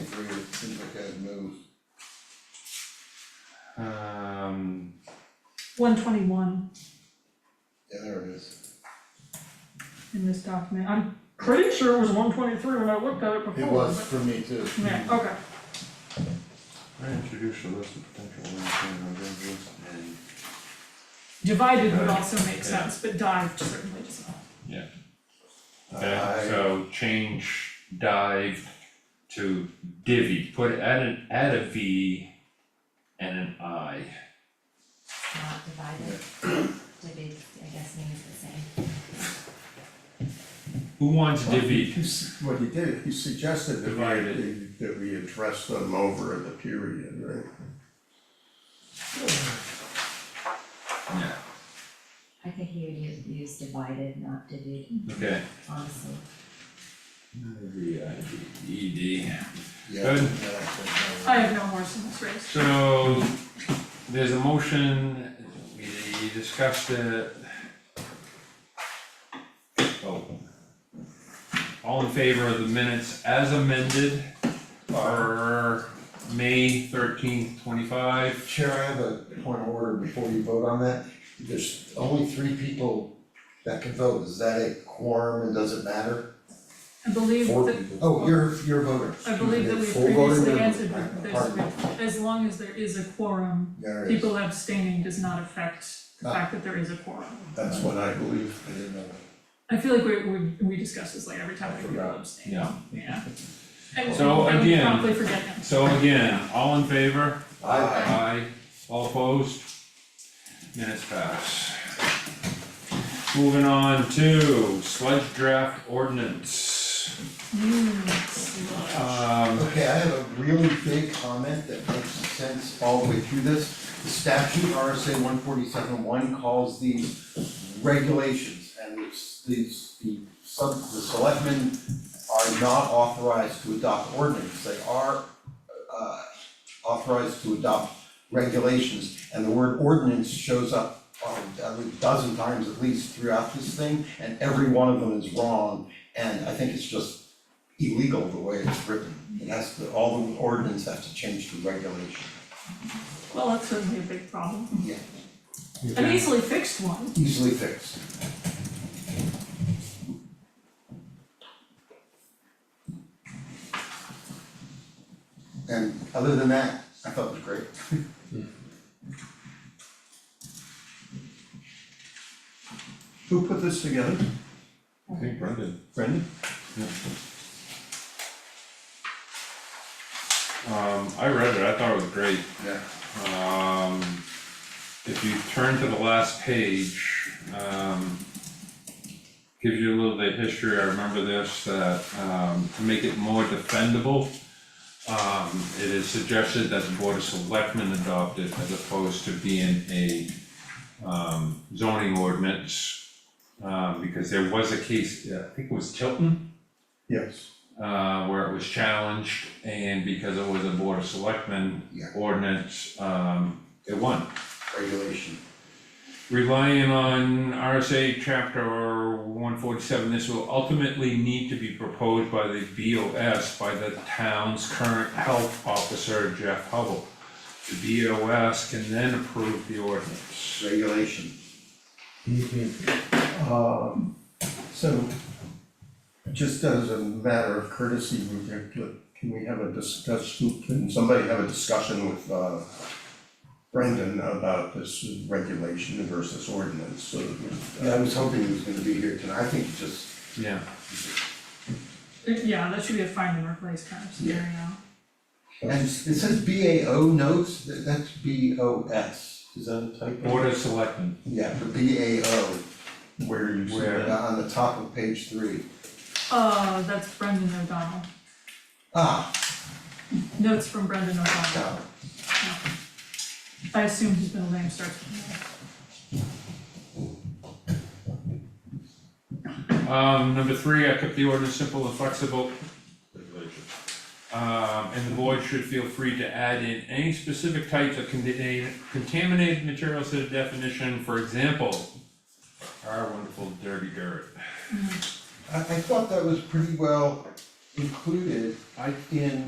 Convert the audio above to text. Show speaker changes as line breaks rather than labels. Seems like I'd move,
Um,
one twenty-one
yeah, there it is.
in this document, I'm pretty sure it was one twenty-three when I looked at it before.
It was for me too.
Oh, but- Yeah, okay,
I introduced a list of potential landowner residences and,
divided would also make sense, but dived certainly does not.
Uh, okay, so change dive to divvy, put, add an, add a V and an I.
not divided, divvied, I guess means the same.
Who wants divvy?
He s- What he did, he suggested that we,
Divided.
that we address them over the period, right?
Yeah,
I think he would use, use divided, not divvied,
okay.
honestly.
V I D E D.
Yeah.
Good.
exactly.
I have no horse in this race.
So, there's a motion, we discussed it. Oh. All in favor of the minutes as amended for May thirteenth, twenty-five?
Chair, I have a point of order before you vote on that. There's only three people that can vote. Is that a quorum and does it matter?
I believe
Four
that,
people.
Oh, you're, you're a voter.
I believe that we
Full voter,
previously
you're-
answered
I-
that there's,
pardon me.
as long as there is a quorum,
There it is.
people abstaining does not affect the
Ah.
fact that there is a quorum.
That's what I believe, I didn't know.
I feel like we we we discuss this like every time we people abstain,
Yeah.
yeah. And
So
and we
again-
promptly forget them.
So again, all in favor?
I,
Aye. All opposed? Minutes pass. Moving on to sludge draft ordinance.
Hmm.
Um,
okay, I have a really big comment that makes sense all the way through this. The statute RSA one forty-seven one calls these regulations and it's these, the sub, the selectmen are not authorized to adopt ordinance. They are uh, authorized to adopt regulations, and the word ordinance shows up um, a dozen times at least throughout this thing, and every one of them is wrong, and I think it's just illegal the way it's written. It has to, all the ordinance have to change to regulation.
Well, that's certainly a big problem,
Yeah,
an easily fixed one.
easily fixed. And other than that, I thought it was great.
Who put this together?
I think Brendan.
Brendan?
Um, I read it, I thought it was great.
Yeah.
Um, if you turn to the last page, um, gives you a little bit of history, I remember this, that, um, to make it more defendable, um, it is suggested that the Board of Selectmen adopt it as opposed to being a, um, zoning ordinance. Um, because there was a case, I think it was Tilton,
Yes.
uh, where it was challenged, and because it was a board of selectmen
Yeah.
ordinance, um, it won.
Regulation.
Relying on RSA chapter one forty-seven, this will ultimately need to be proposed by the BOS by the town's current health officer, Jeff Hubble. The BOS can then approve the ordinance.
Regulation.
Um, so, just as a matter of courtesy, we could- can we have a discussion, can somebody have a discussion with, uh, Brendan about this regulation versus ordinance, so that we- uh,
Yeah, I was hoping he was gonna be here tonight. I think he just,
Yeah.
Yeah, that should be a find and replace kind of scenario.
and it says B A O notes, Th- that's B O S. Is that a typo?
Board of selectmen,
Yeah, for B A O,
where you see
Where-
that.
on the top of page three.
Uh, that's Brendan O'Donnell,
Ah,
notes from Brendan O'Donnell,
got it.
I assume his middle name starts with
Um, number three, I kept the ordinance simple and flexible. Um, and the board should feel free to add in any specific types of contaminated, contaminated materials to the definition, for example, our wonderful dirty dirt.
I, I thought that was pretty well included in